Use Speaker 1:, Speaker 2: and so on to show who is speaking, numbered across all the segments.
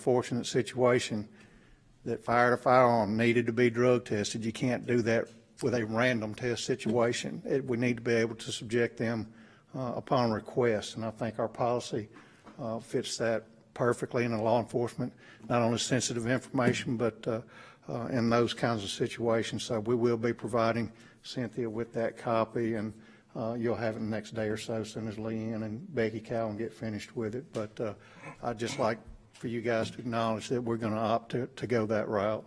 Speaker 1: unfortunate situation that fired a firearm needed to be drug tested. You can't do that with a random test situation. It, we need to be able to subject them uh, upon request, and I think our policy uh, fits that perfectly in the law enforcement, not only sensitive information, but uh, uh, in those kinds of situations. So we will be providing Cynthia with that copy, and uh, you'll have it the next day or so, as soon as Leanne and Becky Cowan get finished with it. But uh, I'd just like for you guys to acknowledge that we're going to opt to, to go that route.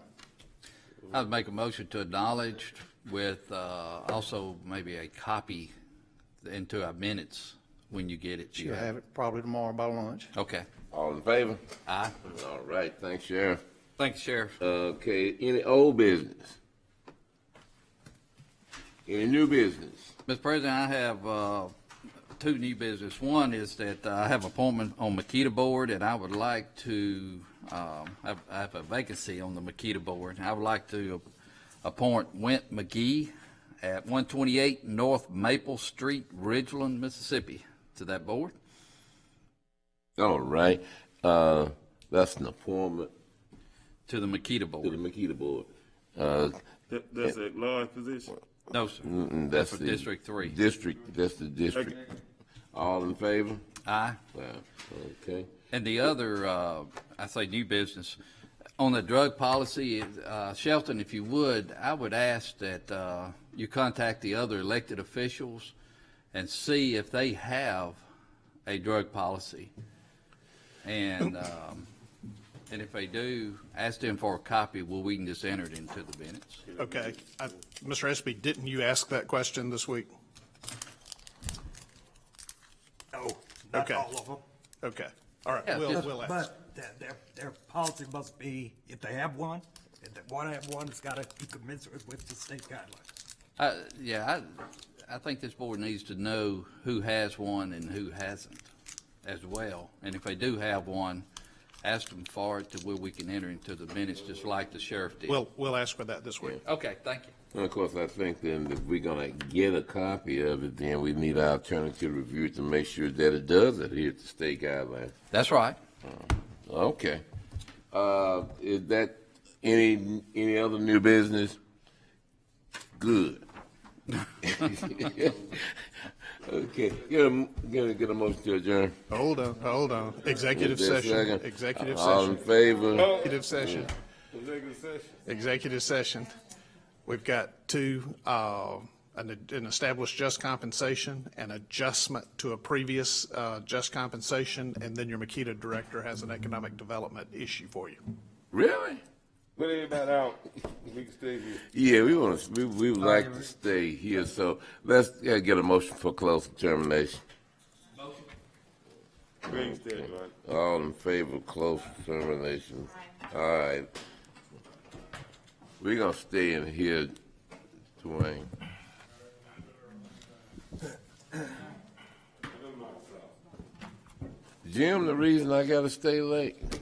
Speaker 2: I'd make a motion to acknowledge with uh, also maybe a copy into our minutes when you get it.
Speaker 1: You'll have it probably tomorrow by lunch.
Speaker 2: Okay.
Speaker 3: All in favor?
Speaker 2: Aye.
Speaker 3: All right, thanks, Sheriff.
Speaker 2: Thanks, Sheriff.
Speaker 3: Okay, any old business? Any new business?
Speaker 2: Mr. President, I have uh, two new business. One is that I have appointment on Makita Board, and I would like to, um, I have- I have a vacancy on the Makita Board. I would like to appoint Went McGee at 128 North Maple Street, Ridgeland, Mississippi, to that board.
Speaker 3: All right, uh, that's an appointment
Speaker 2: To the Makita Board.
Speaker 3: to the Makita Board. Uh,
Speaker 4: That, that's a large position.
Speaker 2: No, sir.
Speaker 3: mm, that's
Speaker 2: for
Speaker 3: the.
Speaker 2: District Three.
Speaker 3: District, that's the district. All in favor?
Speaker 2: Aye.
Speaker 3: Wow, okay.
Speaker 2: And the other, uh, I say new business, on the drug policy, uh, Shelton, if you would, I would ask that, uh, you contact the other elected officials and see if they have a drug policy. And, um, and if they do, ask them for a copy, well, we can just enter it into the minutes.
Speaker 5: Okay. I- Mr. Espy, didn't you ask that question this week?
Speaker 6: No, not
Speaker 5: Okay.
Speaker 6: all of them.
Speaker 5: Okay. All right.
Speaker 2: Yeah,
Speaker 5: We'll,
Speaker 2: just-
Speaker 5: we'll ask.
Speaker 6: But their, their, their policy must be, if they have one, if they want to have one, it's got to be commensurate with the state guidelines.
Speaker 2: Uh, yeah, I, I think this board needs to know who has one and who hasn't as well. And if they do have one, ask them for it to where we can enter into the minutes, just like the sheriff did.
Speaker 5: We'll, we'll ask for that this week.
Speaker 2: Okay, thank you.
Speaker 3: And of course, I think then if we're gonna get a copy of it, then we need our attorney to review it to make sure that it does adhere to state guidelines.
Speaker 2: That's right.
Speaker 3: Okay. Uh, is that any, any other new business? Good. Okay, get a, get a, get a motion to adjourn.
Speaker 5: Hold on, hold on. Executive
Speaker 3: Is there a
Speaker 5: session,
Speaker 3: second?
Speaker 5: executive
Speaker 3: All in
Speaker 5: session,
Speaker 3: favor?
Speaker 4: Oh.
Speaker 5: executive session,
Speaker 4: Executive session.
Speaker 5: executive session. We've got two, uh, an, an established just compensation, an adjustment to a previous, uh, just compensation, and then your Makita director has an economic development issue for you.
Speaker 3: Really?
Speaker 4: Put everybody out. Oh, We can stay here.
Speaker 3: Yeah, we want to, we, we would like to stay here, so let's, yeah, get a motion for close determination.
Speaker 4: We can stay, man.
Speaker 3: All in favor of close determination? All right. We're gonna stay in here, Dwayne. Jim, the reason I gotta stay late.